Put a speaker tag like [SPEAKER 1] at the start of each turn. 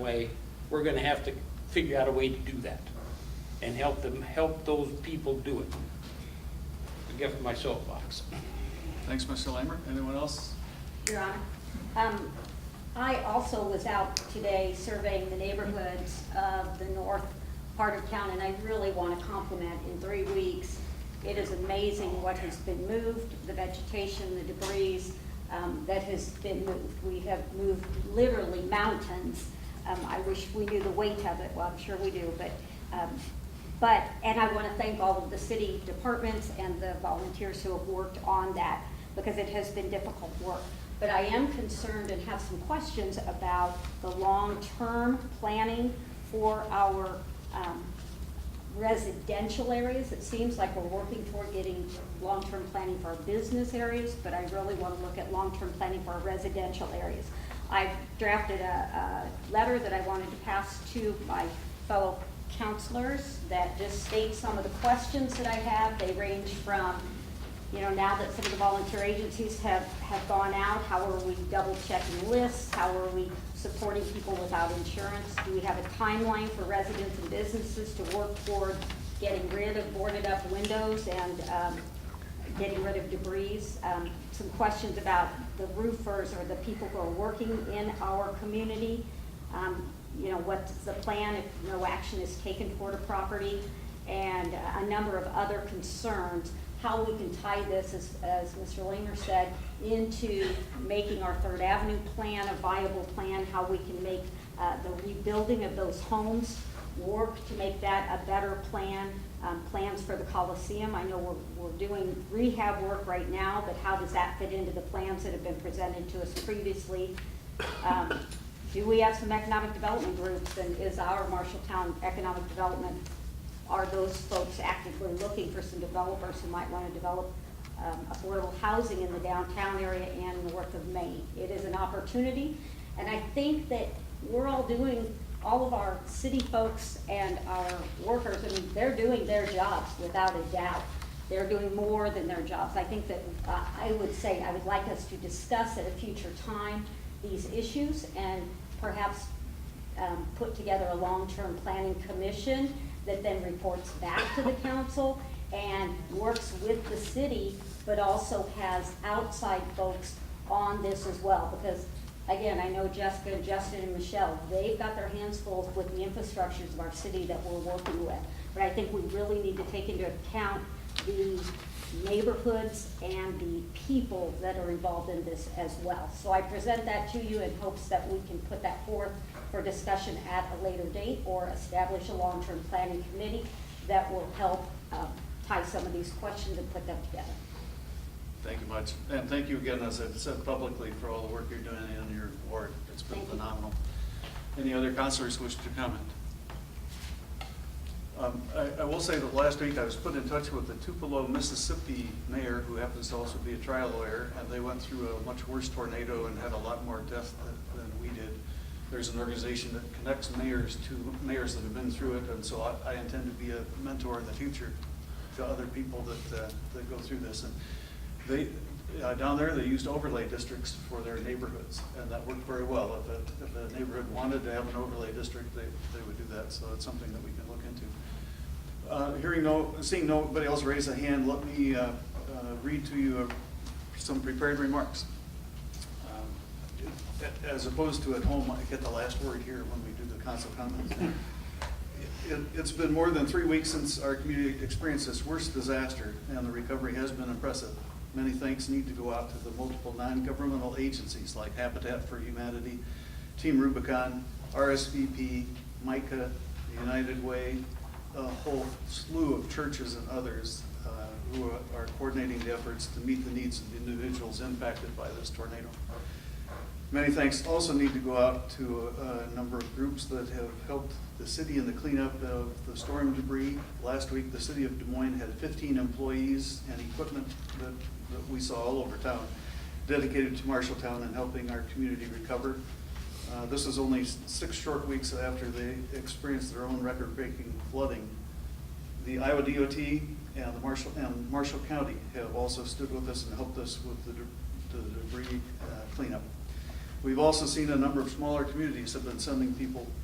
[SPEAKER 1] way, we're gonna have to figure out a way to do that and help them, help those people do it. Forget my soapbox.
[SPEAKER 2] Thanks, Mr. Lamer. Anyone else?
[SPEAKER 3] Your Honor, um, I also was out today surveying the neighborhoods of the north part of town, and I really want to compliment, in three weeks, it is amazing what has been moved, the vegetation, the debris um, that has been moved. We have moved literally mountains. Um, I wish we knew the weight of it, well, I'm sure we do, but um, but, and I want to thank all of the city departments and the volunteers who have worked on that, because it has been difficult work. But I am concerned and have some questions about the long-term planning for our um, residential areas. It seems like we're working toward getting long-term planning for our business areas, but I really want to look at long-term planning for our residential areas. I've drafted a, a letter that I wanted to pass to my fellow counselors that just states some of the questions that I have. They range from, you know, now that some of the volunteer agencies have, have gone out, how are we double checking lists? How are we supporting people without insurance? Do we have a timeline for residents and businesses to work toward getting rid of boarded up windows and, um, getting rid of debris, um, some questions about the roofers or the people who are working in our community. Um, you know, what's the plan if no action is taken toward a property? And a number of other concerns, how we can tie this, as, as Mr. Langer said, into making our Third Avenue plan a viable plan, how we can make, uh, the rebuilding of those homes work to make that a better plan, um, plans for the Coliseum. I know we're, we're doing rehab work right now, but how does that fit into the plans that have been presented to us previously? Um, Do we have some economic development groups, and is our Marshalltown Economic Development, are those folks actively looking for some developers who might want to develop um, affordable housing in the downtown area and north of Maine. It is an opportunity, and I think that we're all doing, all of our city folks and our workers, I mean, they're doing their jobs without a doubt. They're doing more than their jobs. I think that, uh, I would say, I would like us to discuss at a future time these issues and perhaps um, put together a long-term planning commission that then reports back to the council and works with the city, but also has outside folks on this as well. Because, again, I know Jessica, Justin, and Michelle, they've got their hands full with the infrastructures of our city that we're working with. But I think we really need to take into account the neighborhoods and the people that are involved in this as well. So I present that to you in hopes that we can put that forth for discussion at a later date or establish a long-term planning committee that will help uh, tie some of these questions and put them together.
[SPEAKER 2] Thank you much. And thank you again, as I've said publicly, for all the work you're doing in your ward. It's been
[SPEAKER 3] Thank you.
[SPEAKER 2] phenomenal. Any other counselors wish to comment? Um, I, I will say that last week I was put in touch with the Tupelo, Mississippi mayor, who happens to also be a trial lawyer, and they went through a much worse tornado and had a lot more death than- than we did. There's an organization that connects mayors to mayors that have been through it, and so I, I intend to be a mentor in the future to other people that, uh, that go through this. And they, uh, down there, they used overlay districts for their neighborhoods, and that worked very well. If a, if a neighborhood wanted to have an overlay district, they, they would do that, so it's something that we can look into. Uh, Hearing no, seeing nobody else raise a hand, let me uh, uh, read to you uh, some prepared remarks. Um, As opposed to at home, I get the last word here when we do the council comments. It, it's been more than three weeks since our community experienced its worst disaster, and the recovery has been impressive. Many thanks need to go out to the multiple non-governmental agencies like Habitat for Humanity, Team Rubicon, RSVP, MICA, the United Way, a whole slew of churches and others uh, who are coordinating the efforts to meet the needs of the individuals impacted by this tornado. Many thanks also need to go out to a a number of groups that have helped the city in the cleanup of the storm debris. Last week, the city of Des Moines had 15 employees and equipment that, that we saw all over town dedicated to Marshalltown and helping our community recover. Uh, This is only s- six short weeks after they experienced their own record-breaking flooding. The Iowa DOT and the Marshall, and Marshall County have also stood with us and helped us with the de- the debris uh, cleanup. We've also seen a number of smaller communities have been sending people